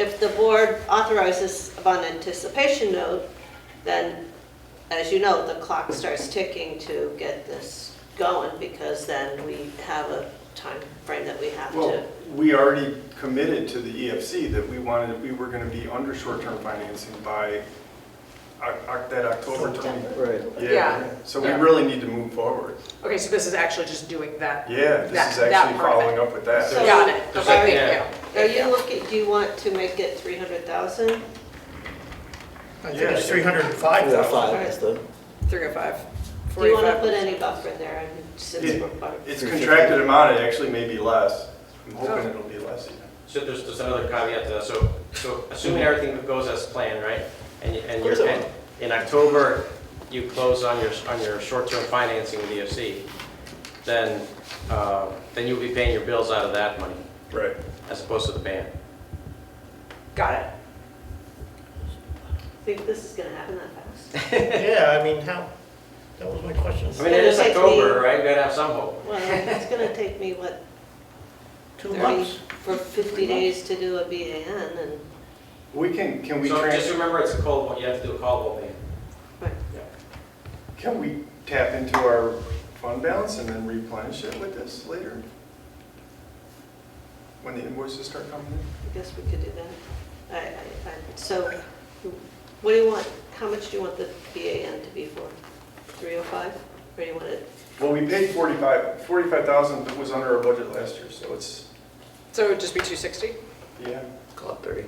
If the board authorizes upon anticipation note, then, as you know, the clock starts ticking to get this going, because then we have a time frame that we have Well, to. we already committed to the EFC that we wanted, we were going to be under short-term financing by Oc- Oc- that October 20. Right. Yeah. So we really need to move forward. Okay, so this is actually just doing that. Yeah, this That- is that actually part of it. following up with that. So- Got it. Okay, Sorry. thank you. Are Thank you looking, do you want to make it 300,000? I think it's Yeah. three hundred and five Yeah, thousand. five is the, Three oh five. Do you want to put any buffer in there, I mean, since Yeah. we're bu- It's contracted amount, it actually may be less. I'm hoping Oh. it'll be less. even. So there's just another caveat to that, so, so assuming everything goes as planned, right? And, you- and Of course you're, it and in October, you close on your, on your short-term financing with EFC, then, uh, then you'll be paying your bills out of that money Right. as opposed to the ban. Got it. Think this is gonna happen that fast? Yeah, I mean, how, that was my question. I mean, it is It's gonna take me- October, right? We gotta have some hope. Well, it's gonna take me, what, Two 30, months? for 50 days to do a BAN and, We can, can we, So just trans- remember it's a callable, you have to do a callable ban. right. can we tap into our fund balance and then replenish it with this later? When the invoices start coming in? I guess we could do that. I, I, I, so, what do you want, how much do you want the BAN to be for? 305? Or do you want it, Well, we paid 45, 45,000 that was under our budget last year, so it's, So it would just be two sixty? yeah. call it thirty.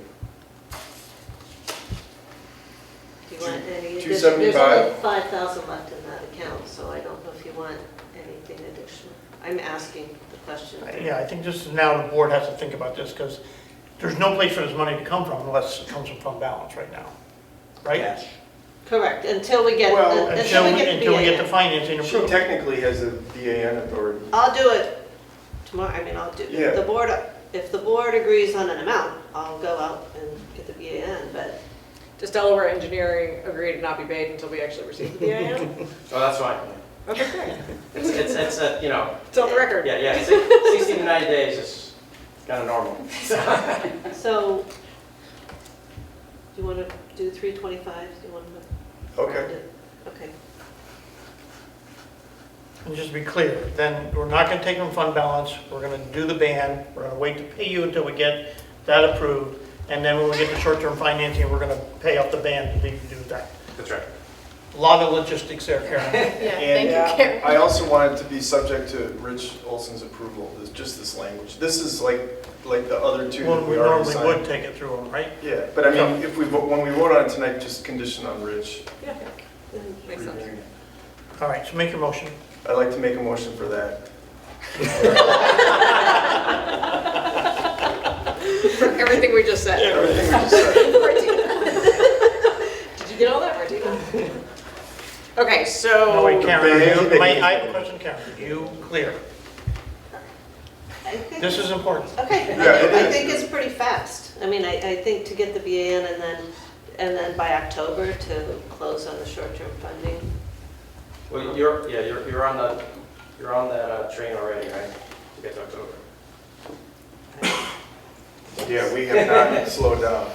do you want any? Two- there's- There's 275. only 5,000 left in that account, so I don't know if you want anything additional. I'm asking the question. Yeah, I think this is now the board has to think about this, because there's no place for this money to come from unless it comes from fund balance right now, right? Correct, until we get, Well, until Until, we we- get until we get the BAN. financing She approved. technically has a BAN authority. I'll do it tomorrow, I mean, I'll do, Yeah. if the board, if the board agrees on an amount, I'll go out and get the BAN, but Does Delaware Engineering agree to not be paid until we actually receive the EIM? So that's fine. Okay, great. It's, it's, it's, uh, you know, It's on the record. yeah, yeah, six- 60 to 90 days is kind of normal. So, do you want to do three twenty-five? Do you want to? Okay. Okay. And just to be clear, then we're not gonna take from fund balance, we're gonna do the ban, we're gonna wait to pay you until we get that approved, and then when we get the short-term financing, we're gonna pay off the ban to do do that. That's right. A lot of logistics there, Karen. Yeah, thank And- you, Karen. I also wanted to be subject to Rich Olson's approval, this- just this language. This is like, like the other two Well, that we we already normally signed. would take it through them, right? Yeah, but I mean, if we, vote when we vote on it tonight, just condition on Rich. Yeah, makes sense. reviewing it. All right, so make your motion. I'd like to make a motion for that. For everything we just said. Everything we just said. Martina. Did you get all that, Martina? Okay, so. No, wait, Karen, the are you, ban- wait, I have a question, Karen. Are you clear? I think- This is important. Okay, Yeah, it I is. think it's pretty fast. I mean, I, I think to get the BAN and then, and then by October to close on the short-term funding. Well, you're, yeah, you're, you're on the, you're on that uh, train already, right? To get to October. Yeah, we have not slowed down.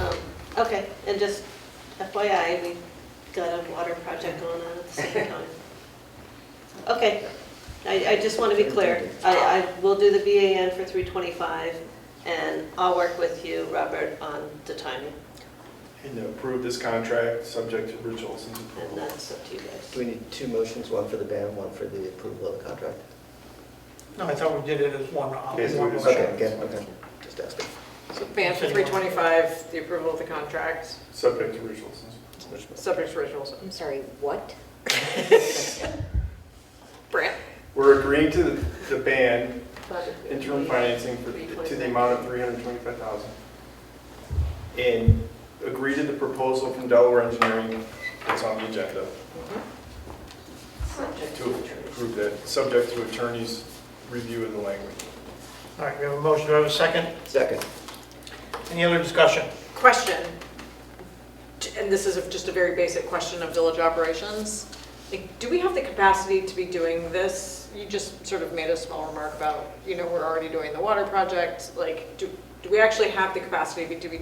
Um, Okay, and just FYI, we got a water project going on at the same time. Okay, I, I just want to be clear. I, I will do the BAN for 325, and I'll work with you, Robert, on the timing, And to approve this contract, subject to Rich Olson's and approval. that's up to you Do guys. we need two motions, one for the ban, one for the approval of the contract? No, I thought we did it as one. uh, Yes, we one did. motion. Okay, again, okay, just asking. So Ban for three twenty-five, the approval of the contract, Subject to Rich Olson's. subject to rituals. I'm sorry, what? Brant? We're agreeing to the, the ban, interim financing for, to the amount of three hundred twenty-five thousand. And agree to the proposal from Delaware Engineering that's on the agenda to approve that, subject to attorney's review of the language. All right, we have a motion, do I have a second? Second, Any other discussion? Question, T- and this is a- just a very basic question of village operations. Like, do we have the capacity to be doing this? You just sort of made a small remark about, you know, we're already doing the water project. Like, do, do we actually have the capacity to be